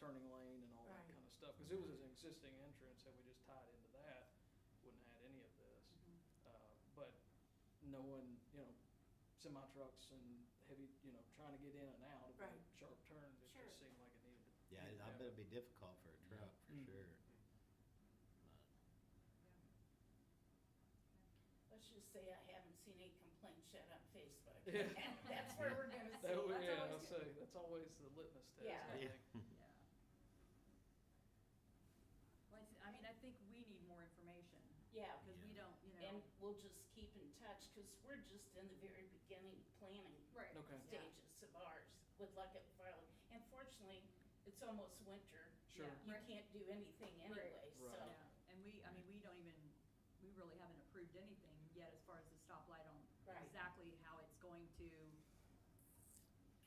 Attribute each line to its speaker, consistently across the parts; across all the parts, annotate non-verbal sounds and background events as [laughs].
Speaker 1: turning lane and all that
Speaker 2: Right.
Speaker 1: kind of stuff, because it was an existing entrance, had we just tied into that, wouldn't have had any of this.
Speaker 3: Mm-hmm.
Speaker 1: Uh, But no one, you know, semi trucks and heavy, you know, trying to get in and out of
Speaker 2: Right.
Speaker 1: a sharp turn, it
Speaker 2: Sure.
Speaker 1: just seemed like it
Speaker 3: [laughs]
Speaker 1: needed.
Speaker 4: Yeah, I bet it'd be difficult for a truck, for
Speaker 1: Mm.
Speaker 4: sure. But
Speaker 3: Let's just say I haven't seen any complaints yet on Facebook.
Speaker 1: Yeah.
Speaker 3: That's where we're gonna see.
Speaker 1: That would-
Speaker 3: That's
Speaker 1: yeah,
Speaker 3: always
Speaker 1: I'll
Speaker 3: good.
Speaker 1: say, that's always the litmus test,
Speaker 3: Yeah.
Speaker 1: I
Speaker 4: Yeah.
Speaker 1: think.
Speaker 3: Yeah.
Speaker 5: Well, I th- I mean, I think we need more information.
Speaker 3: Yeah.
Speaker 5: Because we
Speaker 4: Yeah.
Speaker 5: don't, you know.
Speaker 3: And we'll just keep in touch, cause we're just in the very beginning planning
Speaker 5: Right.
Speaker 1: Okay.
Speaker 3: stages of ours with luck at Farley. And fortunately, it's almost winter.
Speaker 1: Sure.
Speaker 5: Yeah.
Speaker 3: You
Speaker 5: Right.
Speaker 3: can't do anything anyway,
Speaker 5: Right.
Speaker 3: so.
Speaker 5: Yeah, and we, I mean, we don't even, we really haven't approved anything yet as far as the stoplight on
Speaker 3: Right.
Speaker 5: exactly how it's going to,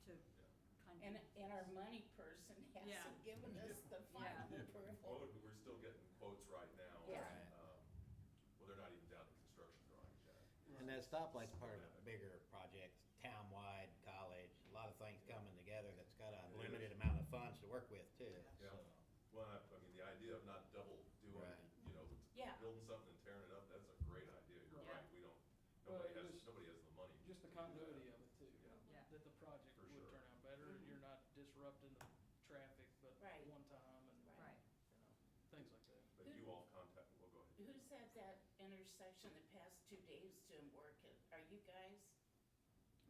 Speaker 5: to kind of.
Speaker 3: And, and our money person hasn't given us the final
Speaker 5: Yeah.
Speaker 3: approval.
Speaker 6: Well, we're still getting quotes right now. on,
Speaker 3: Yeah.
Speaker 6: um, Well, they're not even down to construction drawings yet.
Speaker 4: And that stoplight's part of a bigger project, town-wide, college, a lot of things coming together that's got a limited amount of funds to work with too.
Speaker 6: Yeah,
Speaker 4: so.
Speaker 6: well, I, I mean, the idea of not double
Speaker 4: Right.
Speaker 6: doing, you know,
Speaker 3: Yeah.
Speaker 6: building something and tearing it up, that's a great idea, you're
Speaker 5: Yeah.
Speaker 6: right, we don't,
Speaker 1: Well,
Speaker 6: nobody
Speaker 1: it
Speaker 6: has,
Speaker 1: was-
Speaker 6: nobody has the money. to
Speaker 1: Just the
Speaker 6: do that.
Speaker 1: continuity of it too,
Speaker 5: Yeah.
Speaker 1: that the project
Speaker 6: For
Speaker 1: would
Speaker 6: sure.
Speaker 1: turn out better, and you're not disrupting the traffic but
Speaker 3: Mm-hmm. Right.
Speaker 1: one time and,
Speaker 3: Right.
Speaker 5: Right.
Speaker 1: you know, things like that.
Speaker 6: But you all contact, well, go ahead.
Speaker 3: Who's at that intersection the past two days doing work? Are you guys?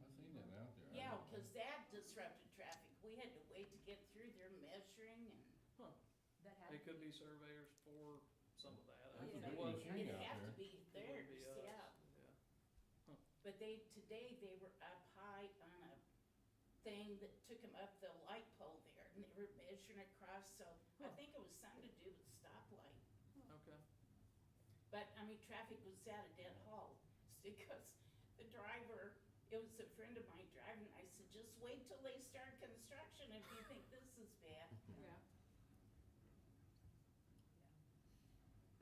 Speaker 7: I seen that out there.
Speaker 3: Yeah, because that disrupted traffic. We had to wait to get through there measuring and.
Speaker 1: Huh,
Speaker 5: That had.
Speaker 1: it could be surveyors for some of that.
Speaker 5: That's a
Speaker 1: It
Speaker 5: big
Speaker 1: was-
Speaker 7: machine.
Speaker 3: It'd
Speaker 7: out
Speaker 3: have to
Speaker 7: there.
Speaker 3: be
Speaker 1: it wouldn't be
Speaker 3: theirs,
Speaker 1: us,
Speaker 3: yeah.
Speaker 1: Yeah.
Speaker 3: But they, today they were up high on a thing that took them up the light pole there and they were measuring across, so I
Speaker 1: Huh.
Speaker 3: think it was something to do with stoplight.
Speaker 1: Okay,
Speaker 3: But, I mean, traffic was at a dead halt, [laughs] because the driver, it was a friend of mine driving, I said, just wait till they start construction if you think this is
Speaker 8: [laughs]
Speaker 3: bad.
Speaker 5: Yeah.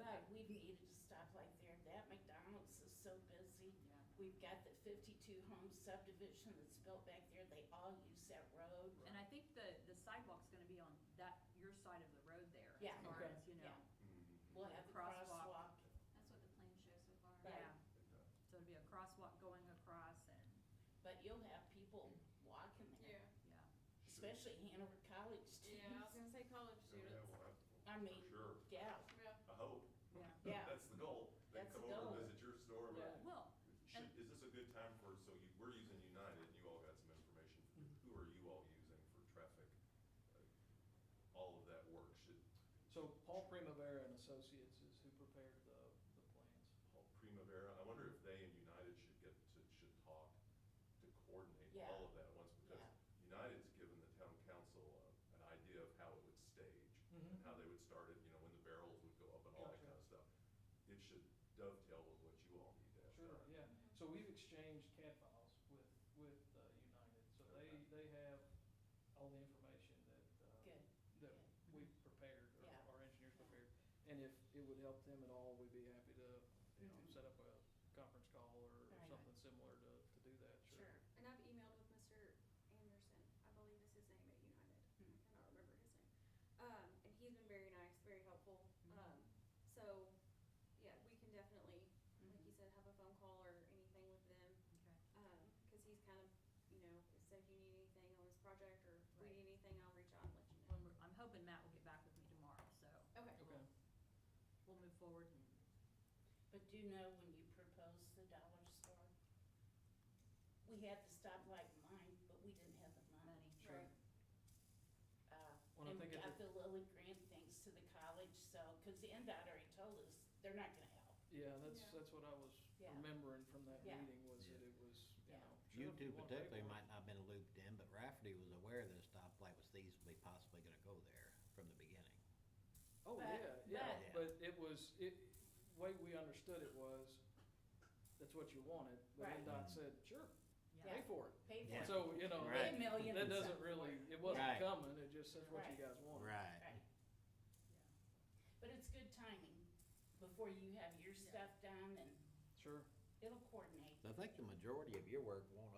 Speaker 3: But we needed to stop like there, that McDonald's is so busy.
Speaker 5: Yeah.
Speaker 3: We've got the fifty-two home subdivision that's built back there, they all use that road.
Speaker 5: And I think the, the sidewalk's gonna be on that, your side of the road there.
Speaker 3: Yeah.
Speaker 5: As far
Speaker 1: Okay.
Speaker 5: as, you know,
Speaker 3: Yeah. We'll have the crosswalk.
Speaker 5: Crosswalk.
Speaker 8: That's what the plan shows so far.
Speaker 3: Right.
Speaker 5: yeah,
Speaker 6: It does.
Speaker 5: so it'll be a crosswalk going across and,
Speaker 3: But you'll have people walking
Speaker 8: Yeah,
Speaker 3: there,
Speaker 5: yeah.
Speaker 3: especially Hanover College
Speaker 8: yeah, I was gonna
Speaker 3: students.
Speaker 8: say college
Speaker 6: Oh, yeah,
Speaker 8: students.
Speaker 6: we'll have-
Speaker 3: I mean,
Speaker 6: For sure,
Speaker 3: [laughs] yeah,
Speaker 8: Yeah.
Speaker 6: I hope.
Speaker 5: Yeah.
Speaker 3: Yeah.
Speaker 6: [laughs] That's the goal, they
Speaker 3: That's
Speaker 6: come
Speaker 3: the
Speaker 6: over
Speaker 3: goal.
Speaker 6: and visit your store,
Speaker 1: Yeah.
Speaker 6: but
Speaker 5: Well, And-
Speaker 6: Should, is this a good time for, so you, we're using United, and you all got some information, who are you all using for traffic? Uh, All of that work, should,
Speaker 1: so Paul Primavera and Associates is who prepared the, the plans.
Speaker 6: Paul Primavera, I wonder if they and United should get, to- should talk to coordinate
Speaker 3: Yeah.
Speaker 6: all of that at once, because
Speaker 3: Yeah.
Speaker 6: United's given the town council uh, an idea of how it would stage,
Speaker 1: Mhm.
Speaker 6: and how they would start it, you know, when the barrels would go up and all that
Speaker 1: Gotcha.
Speaker 6: kind of stuff. It should dovetail with what you all need to have.
Speaker 1: Sure,
Speaker 6: done.
Speaker 1: yeah, so we've exchanged CAD files with, with uh, United, so they, they
Speaker 6: Okay.
Speaker 1: have all the information that, uh,
Speaker 3: good,
Speaker 1: that
Speaker 5: Yeah.
Speaker 1: we prepared,
Speaker 3: Yeah.
Speaker 1: or our engineers prepared. And if it would help them at all, we'd be happy to, you know,
Speaker 3: Mhm.
Speaker 1: set up a conference call or
Speaker 3: Right.
Speaker 1: something similar to, to do that, sure.
Speaker 3: sure.
Speaker 8: And I've emailed with Mr. Anderson, I believe is his name at United, I
Speaker 3: Mhm.
Speaker 5: Hmm.
Speaker 8: cannot remember his name. Um, and he's been very nice, very helpful,
Speaker 5: Mhm.
Speaker 8: um, so, yeah, we can definitely, like you
Speaker 3: Mhm.
Speaker 8: said, have a phone call or anything with them.
Speaker 5: Hmm. Okay.
Speaker 8: Um, cause he's kind of, you know, said if you need anything on this project, or if we
Speaker 5: Right.
Speaker 8: need anything, I'll reach out and let you
Speaker 5: Well,
Speaker 8: know.
Speaker 5: we're- I'm hoping Matt will get back with me tomorrow, so
Speaker 8: Okay.
Speaker 1: Okay,
Speaker 5: we'll move forward and
Speaker 3: But do you know when you proposed the dollar store? We had the stoplight in mind, but we didn't have the money.
Speaker 5: money.
Speaker 8: Right.
Speaker 3: Uh,
Speaker 1: Well, I
Speaker 3: And we
Speaker 1: think if
Speaker 3: got
Speaker 1: it-
Speaker 3: the Lilly grant things to the college, so, because the NDOT already told us, they're not gonna help.
Speaker 1: yeah, that's,
Speaker 8: Yeah.
Speaker 1: that's what I was
Speaker 3: Yeah.
Speaker 1: remembering from that
Speaker 3: Yeah.
Speaker 1: meeting, was that
Speaker 4: Yeah.
Speaker 1: it was, you
Speaker 3: Yeah.
Speaker 1: know. sure,
Speaker 4: You
Speaker 1: if you
Speaker 4: two
Speaker 1: want to pay
Speaker 4: particularly
Speaker 1: for it.
Speaker 4: might not have been looped in, but Rafferty was aware that a stoplight was feasibly possibly gonna go there from the beginning.
Speaker 1: Oh,
Speaker 3: But-
Speaker 1: yeah, yeah,
Speaker 4: but-
Speaker 1: but it was, it, way we understood it was, that's what you wanted, but
Speaker 3: Right.
Speaker 1: NDOT
Speaker 4: Mm-hmm.
Speaker 1: said, sure,
Speaker 5: Yeah.
Speaker 1: pay for it.
Speaker 3: Pay
Speaker 4: Yeah.
Speaker 3: for it.
Speaker 1: So, you know,
Speaker 4: Right.
Speaker 1: that
Speaker 3: Pay a million.
Speaker 1: that
Speaker 3: and
Speaker 1: doesn't
Speaker 3: some.
Speaker 1: really, it wasn't
Speaker 4: Right.
Speaker 1: coming, it just says what you
Speaker 3: Right.
Speaker 1: guys wanted.
Speaker 4: Right.
Speaker 3: Right, but it's good timing before you have your
Speaker 5: Yeah.
Speaker 3: stuff done and
Speaker 1: Sure.
Speaker 3: it'll coordinate.
Speaker 4: I think the majority of your work won't